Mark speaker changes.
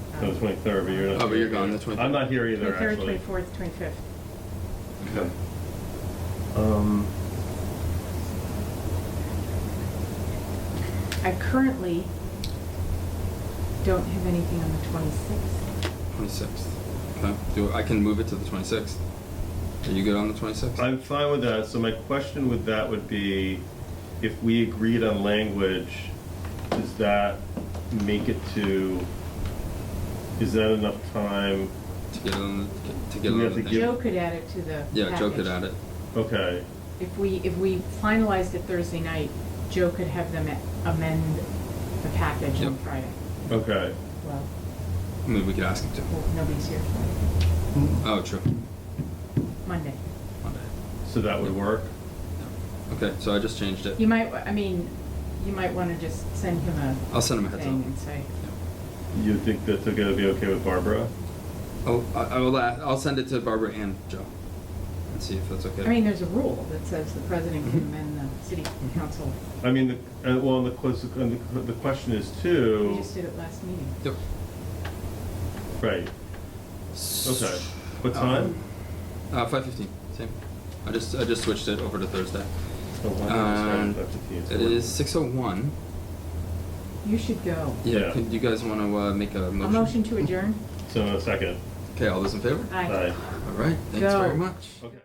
Speaker 1: No, twenty-third, but you're not.
Speaker 2: Oh, but
Speaker 1: here.
Speaker 2: you're gone, that's what.
Speaker 1: I'm not here either,
Speaker 3: Twenty-third,
Speaker 1: actually.
Speaker 3: twenty-fourth, twenty-fifth.
Speaker 1: Okay. Um,
Speaker 3: I currently don't have anything on the twenty-sixth.
Speaker 2: Twenty-sixth. Okay, do, I can move it to the twenty-sixth. Are you good on the twenty-sixth?
Speaker 1: I'm fine with that, so my question with that would be, if we agreed on language, does that make it to, is that enough time?
Speaker 2: To get on, the- to get
Speaker 1: Do
Speaker 2: on
Speaker 1: we
Speaker 2: the
Speaker 1: have to
Speaker 2: thing.
Speaker 1: give-
Speaker 3: Joe could add it to the
Speaker 2: Yeah, Joe could
Speaker 3: package.
Speaker 2: add it.
Speaker 1: Okay,
Speaker 3: If we, if we finalized it Thursday night, Joe could have them amend the package on
Speaker 2: Yep.
Speaker 3: Friday.
Speaker 1: okay.
Speaker 3: Well,
Speaker 2: I mean, we could ask him
Speaker 3: well,
Speaker 2: to.
Speaker 3: nobody's here Friday,
Speaker 2: Oh, true.
Speaker 3: Monday.
Speaker 2: Monday.
Speaker 1: So that would work?
Speaker 2: Yeah. Okay, so I just changed it.
Speaker 3: You might, I mean, you might wanna just send him a
Speaker 2: I'll send him a heads up.
Speaker 3: thing and say,
Speaker 1: You think that's gonna be okay with Barbara?
Speaker 2: Oh, I, I will, a- I'll send it to Barbara and Joe and see if that's okay.
Speaker 3: I mean, there's a rule that says the president can
Speaker 2: Mm-hmm.
Speaker 3: amend the city council.
Speaker 1: I mean, the, uh, well, and the, ques- and the, the question is
Speaker 3: We
Speaker 1: too,
Speaker 3: just did it last meeting.
Speaker 2: Yep.
Speaker 1: right, okay. Oh, What time?
Speaker 2: Uh, five fifteen, same. I just, I just switched it over to Thursday.
Speaker 1: Oh, why did I start
Speaker 2: Um,
Speaker 1: with FTP? It's
Speaker 2: It
Speaker 1: work.
Speaker 2: is six oh one.
Speaker 3: You should go.
Speaker 1: Yeah.
Speaker 2: Yeah, could you guys wanna, uh, make a
Speaker 3: A
Speaker 2: motion?
Speaker 3: motion to adjourn?
Speaker 1: So, a second.
Speaker 2: Okay, all those in favor?
Speaker 3: Aye.
Speaker 1: Bye.
Speaker 2: All right, thanks
Speaker 3: Go.
Speaker 2: very much.
Speaker 1: Okay.